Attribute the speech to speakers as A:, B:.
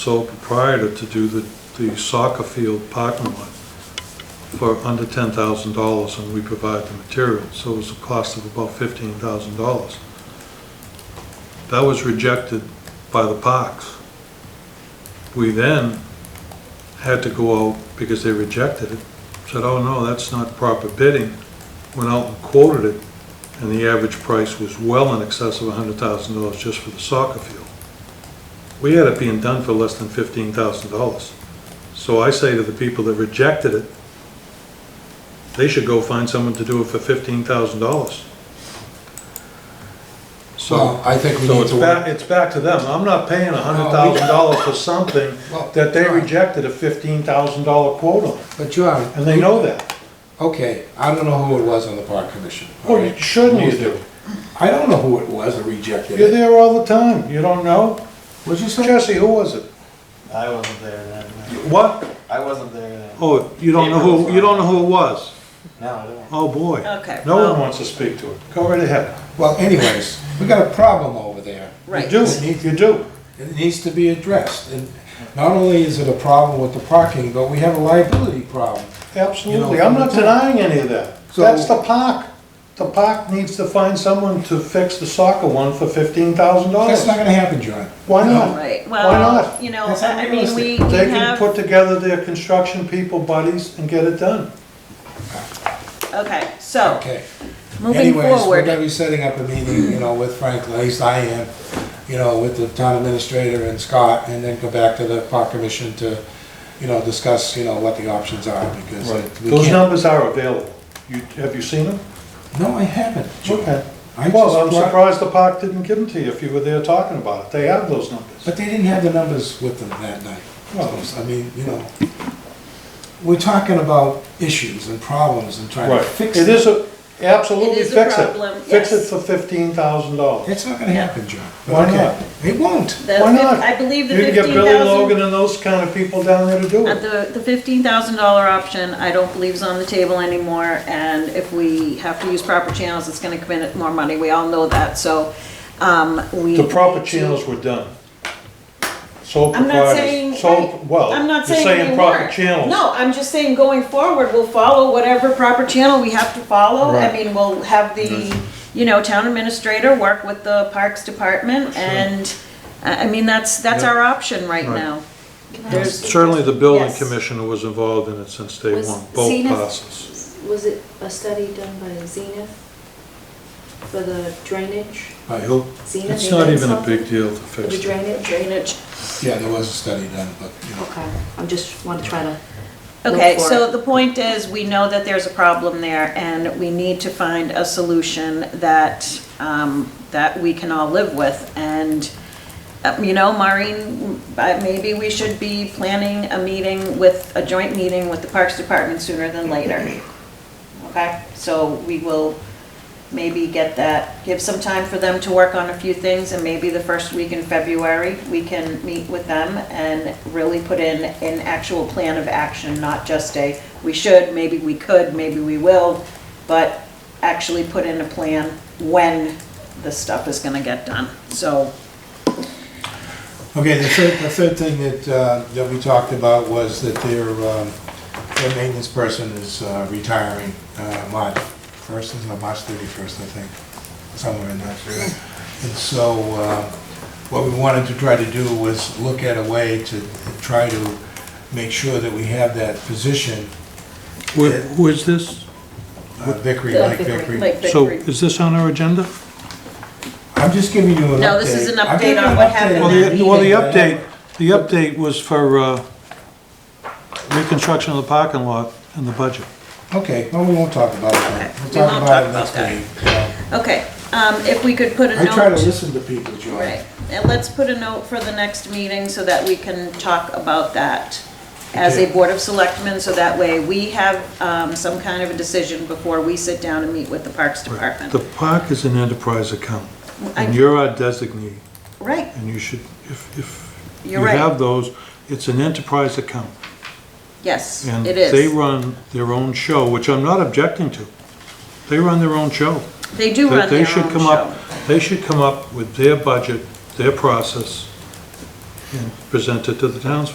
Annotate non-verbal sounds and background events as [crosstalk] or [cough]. A: sole proprietor to do the, the soccer field parking lot for under ten thousand dollars, and we provide the material, so it was a cost of about fifteen thousand dollars. That was rejected by the parks. We then had to go out, because they rejected it, said, oh, no, that's not proper bidding, went out and quoted it, and the average price was well in excess of hundred thousand dollars just for the soccer field. We had it being done for less than fifteen thousand dollars. So I say to the people that rejected it, they should go find someone to do it for fifteen thousand dollars. So,
B: Well, I think we
A: so
B: need
A: it's
B: to.
A: back, it's back to them. I'm not paying hundred thousand dollars [laughs] for something
B: Well,
A: that they
B: John,
A: rejected a fifteen thousand dollar quote on,
B: But John.
A: and they know that.
B: Okay, I don't know who it was on the park commission.
A: Well, you
B: alright?
A: shouldn't you do?
B: I don't know who it was that rejected
A: You're
B: it.
A: there all the time. You don't know?
B: What'd you say?
A: Jesse, who was it?
C: I wasn't there then.
A: What?
C: I wasn't there then.
A: Oh, you don't know who, you don't know who it was?
C: No, I don't.
A: Oh, boy.
D: Okay,
A: No one
D: well-
A: wants to speak to it. Go right ahead.
B: Well, anyways, we got a problem over there.
A: You
D: Right.
A: do, you do.
B: It needs to be addressed. And not only is it a problem with the parking, but we have a liability problem.
A: Absolutely. I'm not denying any of that.
B: So-
A: That's the park. The park needs to find someone to fix the soccer one for fifteen thousand
B: That's
A: dollars.
B: not gonna happen, John.
A: Why not?
D: Right,
A: Why not?
D: well, you know,
B: That's
D: I I mean, we we
B: unrealistic.
A: They can
D: have,
A: put together their construction people buddies and get it done.
D: okay, so,
B: Okay.
D: moving
B: Anyways, we're gonna
D: forward,
B: be setting up a meeting, you know, with Frank, at least I am, you know, with the town administrator and Scott, and then go back to the park commission to, you know, discuss, you know, what the options are, because we
A: Those
B: can't.
A: numbers are available. You, have you seen them?
B: No, I haven't. John.
A: Okay.
B: I
A: Well,
B: just
A: I'm
B: brought-
A: surprised the park didn't give them to you if you were there talking about it. They have those numbers.
B: But they didn't have the numbers with them that night.
A: Well-
B: I mean, you know, we're talking about issues and problems and trying to
A: Right.
B: fix
A: It
B: it.
A: is a, absolutely
D: It is a
A: fix it.
D: problem,
A: Fix it
D: yes.
A: for fifteen thousand dollars.
B: It's not gonna happen, John. But
A: Why
B: okay.
A: not?
B: It won't.
D: the,
A: Why
D: fif-
A: not?
D: I believe the
A: You can get
D: fifteen
A: Billy
D: thousand,
A: Logan and those kind of people down there to do it.
D: the, the fifteen thousand dollar option, I don't believe is on the table anymore, and if we have to use proper channels, it's gonna come in at more money, we all know that, so, um, we.
A: The proper
D: need to-
A: channels were done. Sole
D: I'm not saying,
A: proprietors, sole,
D: right,
A: well,
D: I'm
A: you're
D: not saying they
A: saying proper
D: weren't.
A: channels.
D: No, I'm just saying going forward, we'll follow whatever proper channel we have to follow. I
A: Right.
D: mean, we'll have the, you know, town administrator work with the Parks Department and, I I mean, that's, that's our option right
A: Right.
D: now. There's,
A: Certainly, the building
D: Yes.
A: commissioner was involved in it since day
E: Was
A: one, both
E: Zenith-
A: parcels.
E: Was it a study done by Zenith for the drainage?
B: By who?
E: Zenith,
A: It's
E: they
A: not
E: did
A: even a
E: something
A: big deal to
E: for The
A: fix it.
E: drainage?
D: drainage.
B: Yeah, there was a study done, but, you know.
E: Okay, I'm just, want to try to. look
D: Okay,
E: for
D: so
E: it.
D: the point is, we know that there's a problem there, and we need to find a solution that, um, that we can all live with. And, uh, you know, Maureen, uh, maybe we should be planning a meeting with, a joint meeting with the Parks Department sooner than later. Okay, so we will maybe get that, give some time for them to work on a few things, and maybe the first week in February, we can meet with them and really put in an actual plan of action, not just a, we should, maybe we could, maybe we will, but actually put in a plan when this stuff is gonna get done, so.
B: Okay, the third, the third thing that, uh, that we talked about was that their, um, their maintenance person is uh, retiring, uh, March first, is it March thirty-first, I think, somewhere in that. And so, uh, what we wanted to try to do was look at a way to try to make sure that we have that position, Wh-
A: Who is this?
B: uh, Vickery,
E: The
B: like
E: Vickery.
B: Vickery.
A: So, is this on our agenda?
B: I'm just giving you an update.
D: No, this is an
B: I'm
D: update
B: giving
D: on
B: an
D: what
B: update
D: happened
A: Well,
B: on
D: that
A: the, well, the
B: meeting that happened.
A: update, the update was for, uh, reconstruction of the parking lot and the budget.
B: Okay, well, we won't talk about it then.
D: Okay,
B: We'll
D: we
B: talk
D: won't
B: about
D: talk
B: it
D: about
B: next
D: that.
B: meeting. so.
D: Okay, um, if we could put a
B: I
D: note.
B: try to listen to people, John.
D: Right, and let's put a note for the next meeting so that we can talk about that as a
B: Okay.
D: Board of Selectmen, so that way we have um, some kind of a decision before we sit down and meet with the Parks Department.
A: The park is an enterprise account, and
D: I-
A: you're our designee,
D: Right,
A: and you should, if, if you
D: You're right.
A: have those, it's an enterprise account.
D: yes,
A: And
D: it
A: they
D: is.
A: run their own show, which I'm not objecting to. They run their own show.
D: They do
A: They-
D: run
A: they
D: their
A: should
D: own
A: come
D: show.
A: up- They should come up with their budget, their process, and present it to the townspeople.